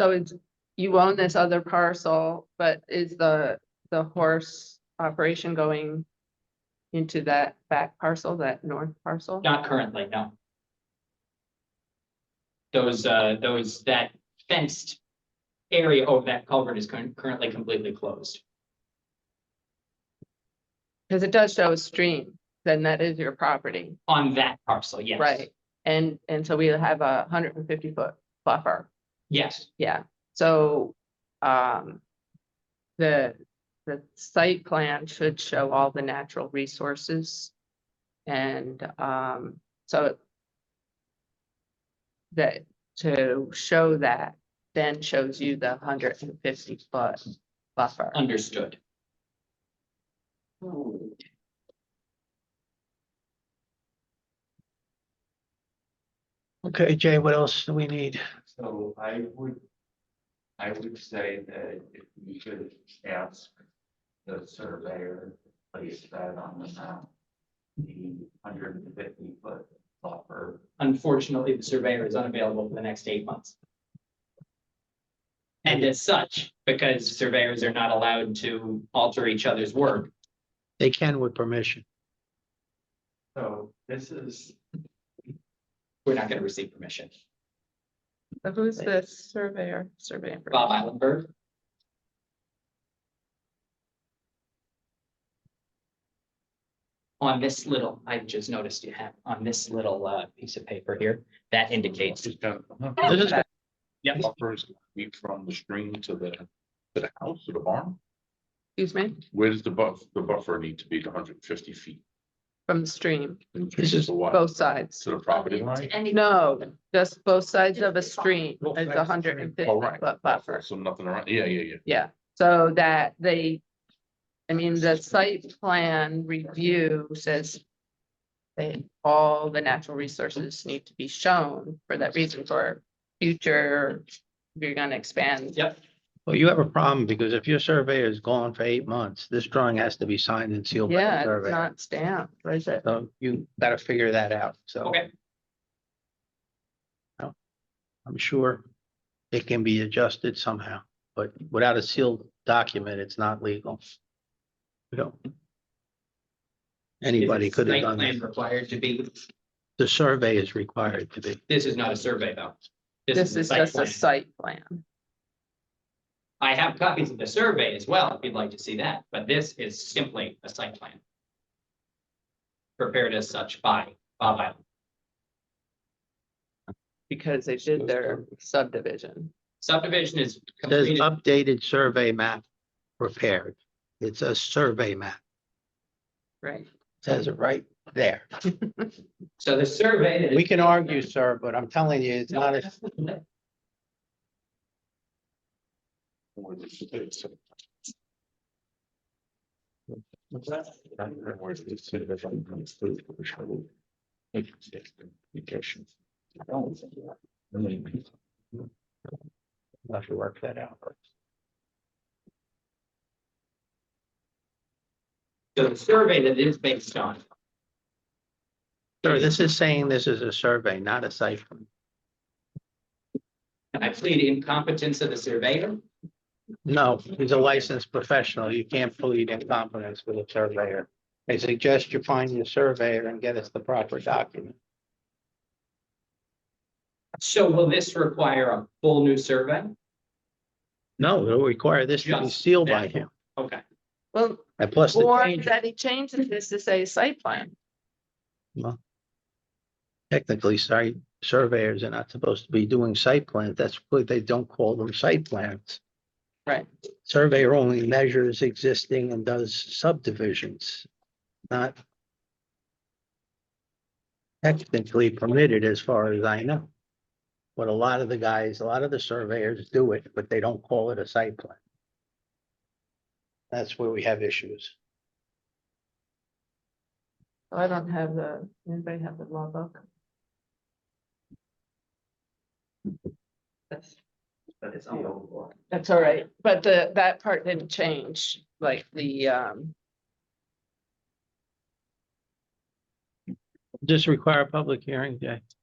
So it's, you own this other parcel, but is the, the horse operation going into that back parcel, that north parcel? Not currently, no. Those, uh, those, that fenced area over that culvert is current- currently completely closed. Because it does show a stream, then that is your property, On that parcel, yes. right? And, and so we have a hundred and fifty foot buffer, Yes, yeah, so, um, the, the site plan should show all the natural resources. And, um, so that, to show that, then shows you the hundred and fifty foot buffer. understood. Okay, Jay, what else do we need? So I would, I would say that if we could ask the surveyor, to place that on the map. The hundred and fifty foot buffer, Unfortunately, the surveyor is unavailable for the next eight months. And as such, because surveyors are not allowed to alter each other's work, They can with permission. so this is, we're not going to receive permission. So Who's the surveyor, surveyor? Bob Islandberg, on this little, I just noticed you have on this little uh piece of paper here, that indicates. uh-huh. This is, Yep. buffers be from the stream to the, to the house or the barn? Excuse me, Where does the buff, the buffer need to be the hundred and fifty feet? from the stream, This is To what? both sides. To the property line? No, just both sides of a stream Both is sides a of the hundred stream. and fifty All right. foot buffer. So nothing around, yeah, yeah, yeah. Yeah, so that they, I mean, the site plan review says they, all the natural resources need to be shown for that reason for future, if you're gonna expand. Yep, well, you have a problem because if your surveyor is gone for eight months, this drawing has to be signed and sealed by the Yeah, it's surveyor. not stamped, what is it? So you gotta figure that out, so. okay, I'm sure it can be adjusted somehow, but without a sealed document, it's not legal. We don't. Anybody Is could have site done plan that. Required to be, The survey is required to be. this is not a survey though. This the is site just a plan. site plan. I have copies of the survey as well, if you'd like to see that, but this is simply a site plan. Prepared as such by Bob Island. because they did their subdivision. Subdivision is There's uh, completed, updated survey map prepared. It's a survey map. Right. Says it right there. so the survey. that is- We can argue, sir, but I'm telling you, it's not a, Oh, I'll have to work that out. So the survey that it is based on, Sir, this is saying this is a survey, not a site. plan. and I plead incompetence of the surveyor, No, he's a licensed professional. You can't plead incompetence with a surveyor. I suggest you find your surveyor and get us the proper document. so will this require a full new survey? No, it'll require this to be Just sealed by that. him. Okay, Well, And plus the or change, that he changes this to say site plan. technically, site surveyors are not supposed to be doing site plans. That's why they don't call them site plans. Right. Surveyor only measures existing and does subdivisions, not technically permitted as far as I know. But a lot of the guys, a lot of the surveyors do it, but they don't call it a site plan. That's where we have issues. So Oh, I don't have the, anybody have the law book? That's, that's the old one. that's all right, but the, that part didn't change, like the, um, Just require a public hearing, Jay.